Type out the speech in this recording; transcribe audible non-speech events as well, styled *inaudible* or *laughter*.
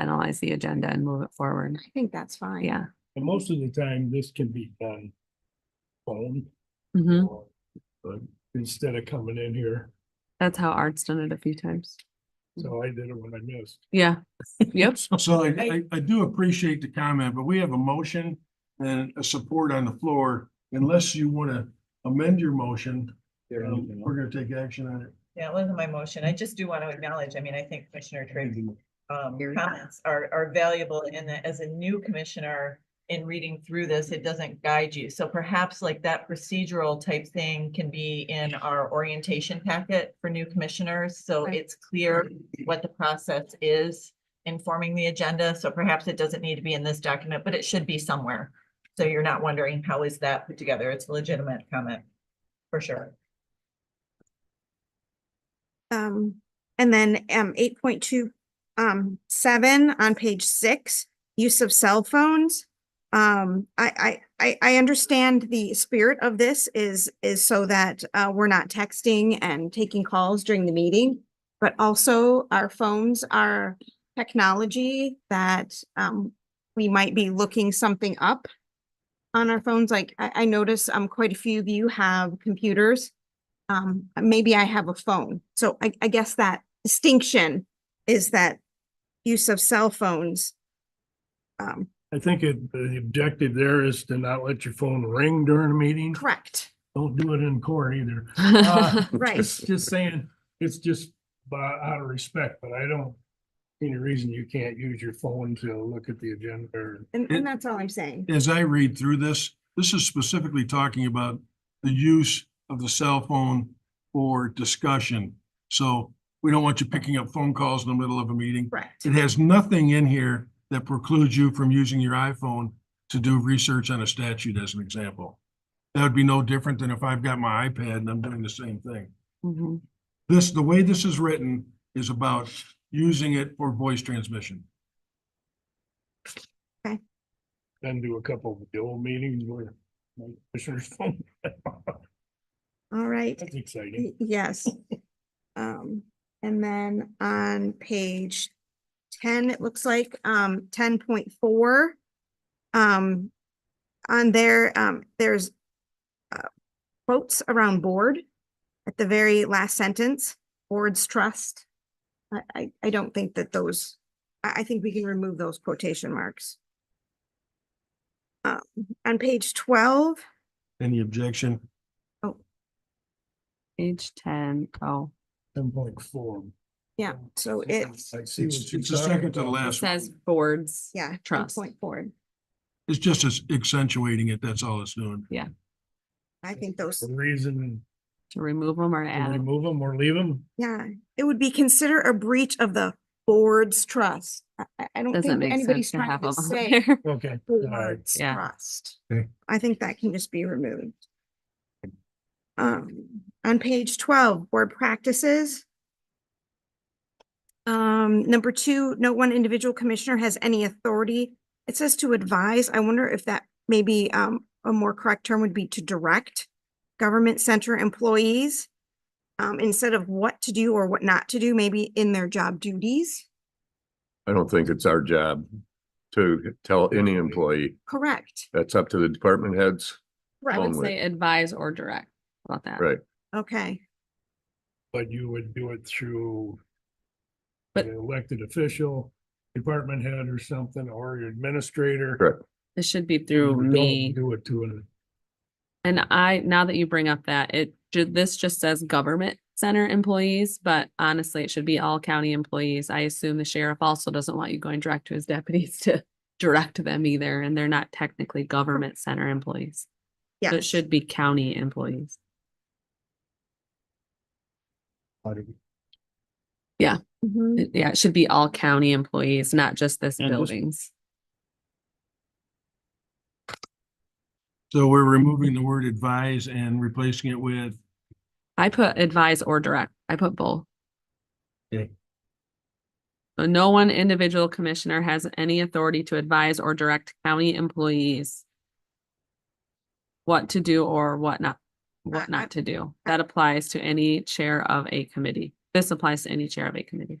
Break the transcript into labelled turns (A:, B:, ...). A: finalize the agenda and move it forward.
B: I think that's fine.
A: Yeah.
C: And most of the time, this can be done phone.
A: Mhm.
C: or- But instead of coming in here,
A: That's how Art's done it a few times.
C: so I did it when I missed.
A: Yeah. *laughs* Yep.
D: So I, I, I do appreciate the comment, but we have a motion and a support on the floor. Unless you want to amend your motion, um, we're gonna take action on it.
E: Yeah, it wasn't my motion. I just do want to acknowledge, I mean, I think Commissioner Trigg um,
A: Here.
E: comments are, are valuable in that as a new commissioner in reading through this, it doesn't guide you. So perhaps like that procedural type thing can be in our orientation packet for new commissioners. So
A: Right.
E: it's clear what the process is informing the agenda. So perhaps it doesn't need to be in this document, but it should be somewhere. So you're not wondering how is that put together? It's a legitimate comment, for sure.
B: Um, and then, um, eight point two, um, seven on page six, use of cell phones. Um, I, I, I, I understand the spirit of this is, is so that, uh, we're not texting and taking calls during the meeting. But also our phones are technology that, um, we might be looking something up on our phones. Like I, I notice, um, quite a few of you have computers um, maybe I have a phone. So I, I guess that distinction is that use of cell phones. Um,
C: I think it- the objective there is to not let your phone ring during a meeting.
B: correct,
C: Don't do it in court either.
A: *laughs* Yeah.
B: Uh, right.
C: It's just saying, it's just by, out of respect, but I don't, any reason you can't use your phone to look at the agenda or
B: And,
D: It-
B: and that's all I'm saying.
D: As I read through this, this is specifically talking about the use of the cell phone for discussion. So we don't want you picking up phone calls in the middle of a meeting.
B: Correct.
D: It has nothing in here that precludes you from using your iPhone to do research on a statute as an example. That would be no different than if I've got my iPad and I'm doing the same thing.
A: Mhm.
D: This, the way this is written is about using it for voice transmission.
C: then do a couple of the old meetings where my commissioner's *laughs* phone.
B: All right.
C: That's exciting.
B: Y- Yes. Um, and then on page ten, it looks like, um, ten point four. Um, on there, um, there's uh, quotes around board at the very last sentence, boards trust. I, I, I don't think that those, I, I think we can remove those quotation marks. Um, on page twelve,
D: Any objection?
A: Page ten. Oh,
C: Ten point four.
B: yeah, so it's,
C: I see
D: It's
C: what you're
D: it's the
C: talking
D: second to the
C: about.
A: it
D: last.
A: says boards.
B: yeah,
A: Trust.
B: Point board.
D: It's just as accentuating it. That's all it's doing.
B: I think those.
C: The reason
A: To remove them or
C: to
A: add 'em.
C: remove them or leave them,
B: Yeah, it would be consider a breach of the board's trust. I, I- I don't
A: Doesn't
B: think
A: make sense
B: anybody's
A: to
B: trying
A: have
B: to
A: them on
B: say
A: there.
C: okay. Alright.
B: board's
A: Yeah.
B: trust.
D: Okay.
B: I think that can just be removed. Um, on page twelve, board practices. Um, number two, no one individual commissioner has any authority. It says to advise. I wonder if that maybe, um, a more correct term would be to direct government center employees um, instead of what to do or what not to do, maybe in their job duties.
F: I don't think it's our job to tell any employee.
B: Correct.
F: That's up to the department heads.
A: I
B: Right.
A: would
F: Only.
A: say advise or direct How about that.
F: Right.
B: Okay.
C: But you would do it through
A: But-
C: an elected official, department head or something, or your administrator.
F: Correct.
A: It should be
C: You
A: through
C: don't
A: me.
C: Do it to an
A: And I, now that you bring up that, it, ju- this just says government center employees, but honestly, it should be all county employees. I assume the sheriff also doesn't want you going direct to his *laughs* deputies to direct them either, and they're not technically government center employees.
B: Yeah.
A: So it should be county employees.
B: Mhm.
A: It- Yeah, it should be all county employees, not just this
C: And this-
A: buildings.
D: So we're removing the word advise and replacing it with
A: I put advise or direct. I put both.
D: Okay.
A: So no one individual commissioner has any authority to advise or direct county employees what to do or what not,
B: I-
A: what
B: I-
A: not to do. That applies to any chair of a committee. This applies to any chair of a committee.